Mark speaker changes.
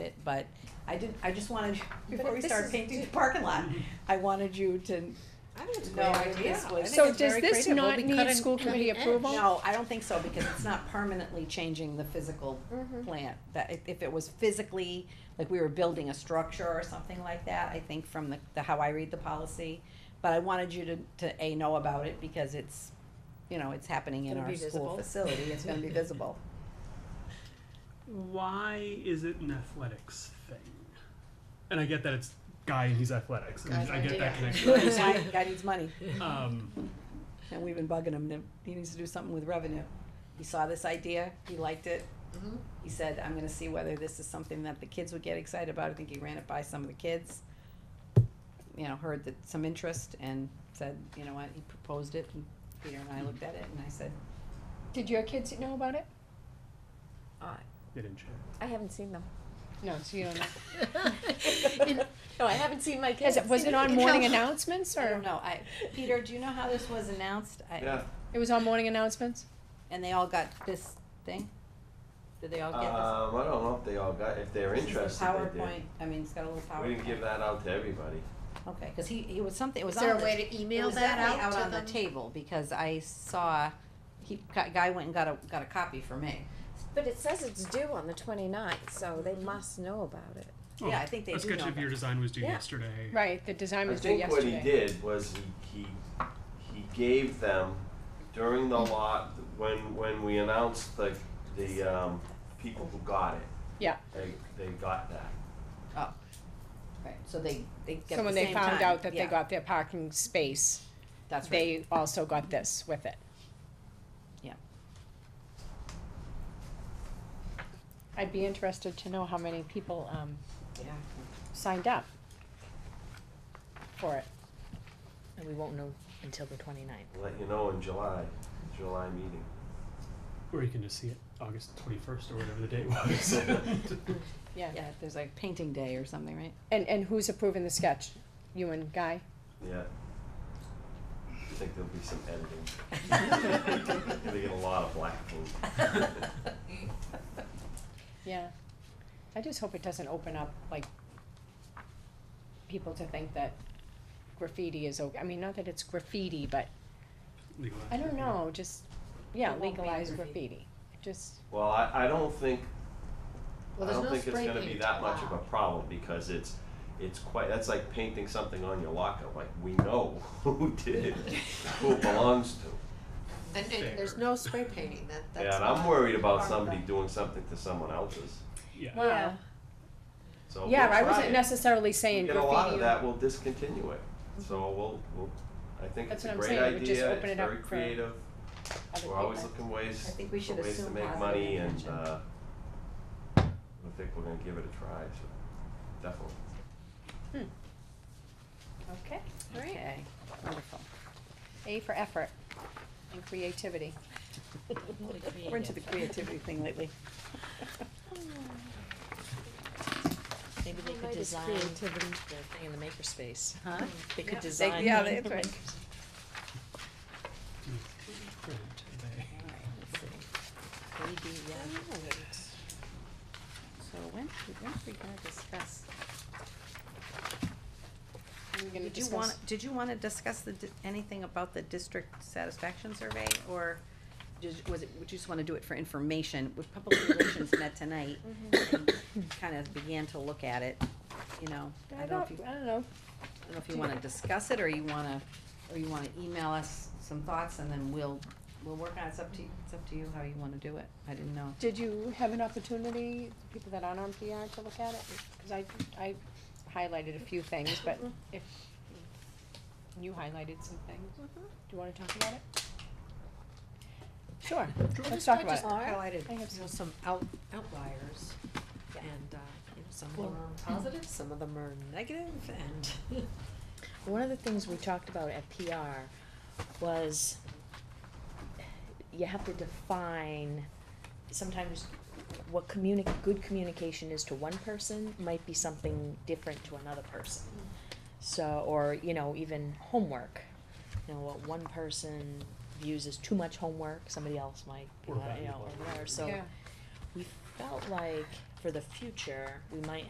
Speaker 1: it, but I didn't, I just wanted, before we
Speaker 2: this
Speaker 1: start
Speaker 2: is-
Speaker 1: painting the parking lot, I wanted you to
Speaker 2: I think it's a
Speaker 1: No
Speaker 2: great idea.
Speaker 1: idea.
Speaker 2: I think
Speaker 3: So
Speaker 2: it's
Speaker 3: does
Speaker 2: very
Speaker 3: this
Speaker 2: creative. We'll
Speaker 3: not
Speaker 2: be
Speaker 3: need
Speaker 2: cutting-
Speaker 3: school
Speaker 2: cutting
Speaker 3: committee
Speaker 2: edge.
Speaker 3: approval?
Speaker 1: No, I don't think so, because it's not permanently changing the physical plant, that if, if it was physically, like we were building a structure or something like that, I think from the, the, how I read the policy. But I wanted you to, to A, know about it, because it's, you know, it's happening in
Speaker 2: Gonna
Speaker 1: our
Speaker 2: be
Speaker 1: school
Speaker 2: visible.
Speaker 1: facility, it's gonna be visible.
Speaker 4: Why is it an athletics thing? And I get that it's guy and he's athletics. And
Speaker 2: Guy's
Speaker 4: I get that
Speaker 2: idea.
Speaker 4: connection.
Speaker 1: Guy guy needs money,
Speaker 4: Um,
Speaker 1: and we've been bugging him, that he needs to do something with revenue. He saw this idea, he liked it,
Speaker 2: Mhm.
Speaker 1: he said, I'm gonna see whether this is something that the kids would get excited about, I think he ran it by some of the kids. You know, heard that, some interest, and said, you know what, he proposed it, and Peter and I looked at it, and I said,
Speaker 3: Did your kids know about it?
Speaker 4: they didn't share.
Speaker 5: I haven't seen them.
Speaker 3: No, so you don't know.
Speaker 5: No, I haven't seen my kids.
Speaker 3: Is it, was it on morning announcements
Speaker 1: I
Speaker 3: or?
Speaker 1: don't know, I, Peter, do you know how this was announced? I-
Speaker 6: Yeah,
Speaker 3: It was on morning announcements?
Speaker 1: And they all got this thing? Did they all
Speaker 6: um,
Speaker 1: get this?
Speaker 6: I don't know if they all got, if they're
Speaker 1: This is the
Speaker 6: interested, they
Speaker 1: PowerPoint,
Speaker 6: did.
Speaker 1: I mean, it's got a little PowerPoint.
Speaker 6: We didn't give that out to everybody.
Speaker 1: Okay, cause he, he was something, it was
Speaker 2: Is
Speaker 1: on
Speaker 2: there a
Speaker 1: the-
Speaker 2: way to
Speaker 1: It
Speaker 2: email
Speaker 1: was
Speaker 2: that
Speaker 1: definitely
Speaker 2: out to
Speaker 1: on the
Speaker 2: them?
Speaker 1: table because I saw he gu- guy went and got a got a copy for me.
Speaker 5: But it says it's due on the 29th, so they must know about it.
Speaker 1: Yeah, I think they
Speaker 4: A
Speaker 1: do
Speaker 4: sketch
Speaker 1: know
Speaker 4: of your
Speaker 1: that.
Speaker 4: design was due
Speaker 5: Yeah.
Speaker 4: yesterday.
Speaker 3: Right, the design
Speaker 6: I
Speaker 3: was due
Speaker 6: think what he
Speaker 3: yesterday.
Speaker 6: did was he, he, he gave them during the lot, when, when we announced the, the, um, people who got it.
Speaker 3: Yeah.
Speaker 6: They, they got that.
Speaker 1: Oh, right. So they they get
Speaker 3: So when
Speaker 1: the
Speaker 3: they
Speaker 1: same
Speaker 3: found
Speaker 1: time.
Speaker 3: out that they
Speaker 1: Yeah,
Speaker 3: got their parking space,
Speaker 1: that's right.
Speaker 3: they also got this with it.
Speaker 1: Yeah.
Speaker 3: I'd be interested to know how many people, um,
Speaker 1: Yeah.
Speaker 3: signed up for it.
Speaker 7: And we won't know until the 29th.
Speaker 6: Let you know in July, July meeting.
Speaker 4: Or you can just see it August 21st or whatever the date was.
Speaker 3: Yeah.
Speaker 1: Yeah. There's like painting day or something, right?
Speaker 3: And, and who's approving the sketch? You and Guy?
Speaker 6: Yeah. I think there'll be some editing. They get a lot of black ink.
Speaker 3: Yeah. I just hope it doesn't open up, like, people to think that graffiti is okay. I mean, not that it's graffiti, but,
Speaker 4: Legalized
Speaker 3: I don't
Speaker 4: graffiti.
Speaker 3: know, just, yeah,
Speaker 2: It won't be
Speaker 3: legalize graffiti.
Speaker 2: graffiti.
Speaker 3: Just,
Speaker 6: Well, I, I don't think
Speaker 2: Well,
Speaker 6: I
Speaker 2: there's
Speaker 6: don't
Speaker 2: no
Speaker 6: think it's
Speaker 2: spray
Speaker 6: gonna be
Speaker 2: paint
Speaker 6: that much of a
Speaker 2: allowed.
Speaker 6: problem because it's, it's quite, that's like painting something on your locker, like, we know who did it, who it belongs to.
Speaker 2: And, and there's
Speaker 4: Fair.
Speaker 2: no spray painting, that, that's.
Speaker 6: And I'm
Speaker 2: not-
Speaker 6: worried about
Speaker 2: part of
Speaker 6: somebody
Speaker 2: that.
Speaker 6: doing something to someone else's,
Speaker 4: Yeah.
Speaker 3: wow.
Speaker 6: so we'll
Speaker 3: Yeah, I
Speaker 6: try
Speaker 3: wasn't
Speaker 6: it.
Speaker 3: necessarily saying
Speaker 6: We get
Speaker 3: graffiti.
Speaker 6: a lot of that, we'll discontinue it, so we'll, we'll, I think
Speaker 3: That's
Speaker 6: it's a
Speaker 3: what I'm
Speaker 6: great
Speaker 3: saying, we
Speaker 6: idea,
Speaker 3: just
Speaker 6: it's
Speaker 3: open it up
Speaker 6: very
Speaker 3: for
Speaker 6: creative,
Speaker 3: other
Speaker 6: we're always
Speaker 3: people.
Speaker 6: looking ways,
Speaker 1: I think we
Speaker 6: for
Speaker 1: should
Speaker 6: ways to
Speaker 1: assume
Speaker 6: make
Speaker 1: positive
Speaker 6: money and,
Speaker 1: intention.
Speaker 6: uh, I think we're gonna give it a try, so, definitely.
Speaker 3: Okay, alright.
Speaker 1: Okay. Wonderful.
Speaker 3: A for effort and creativity.
Speaker 1: We're into the creativity thing lately.
Speaker 7: Maybe they could design the thing in the makerspace, huh? They could design.
Speaker 1: Yeah,
Speaker 7: the-
Speaker 1: that's right.
Speaker 4: Print today.
Speaker 7: Maybe, yeah.
Speaker 1: So when when are we gonna discuss?
Speaker 3: We're
Speaker 1: Did
Speaker 3: gonna
Speaker 1: you
Speaker 3: discuss-
Speaker 1: want, did you wanna discuss the, di- anything about the district satisfaction survey, or did, was it, would you just wanna do it for information? With public relations met tonight, and kinda began to look at it, you know, I
Speaker 3: I
Speaker 1: don't know if you,
Speaker 3: don't, I don't know.
Speaker 1: I don't know if you wanna discuss it, or you wanna, or you wanna email us some thoughts, and then we'll, we'll work on it, it's up to, it's up to you how you wanna do it, I didn't know.
Speaker 3: Did you have an opportunity, people that aren't on PR, to look at it? Cause I, I highlighted a few things, but if, you highlighted some things, do you wanna talk about it? Sure, let's talk about it.
Speaker 7: I just
Speaker 3: I have
Speaker 7: highlighted, you know, some out, outliers. And, uh, you know, some of them are positive, some of them are negative, and one of the things we talked about at PR was you have to define sometimes what communi- good communication is to one person might be something different to another person. So, or, you know, even homework, you know, what one person views as too much homework, somebody else might,
Speaker 4: Or
Speaker 7: uh, you know,
Speaker 4: valuable.
Speaker 7: or whatever, so
Speaker 3: Yeah.
Speaker 7: we felt like for the future, we might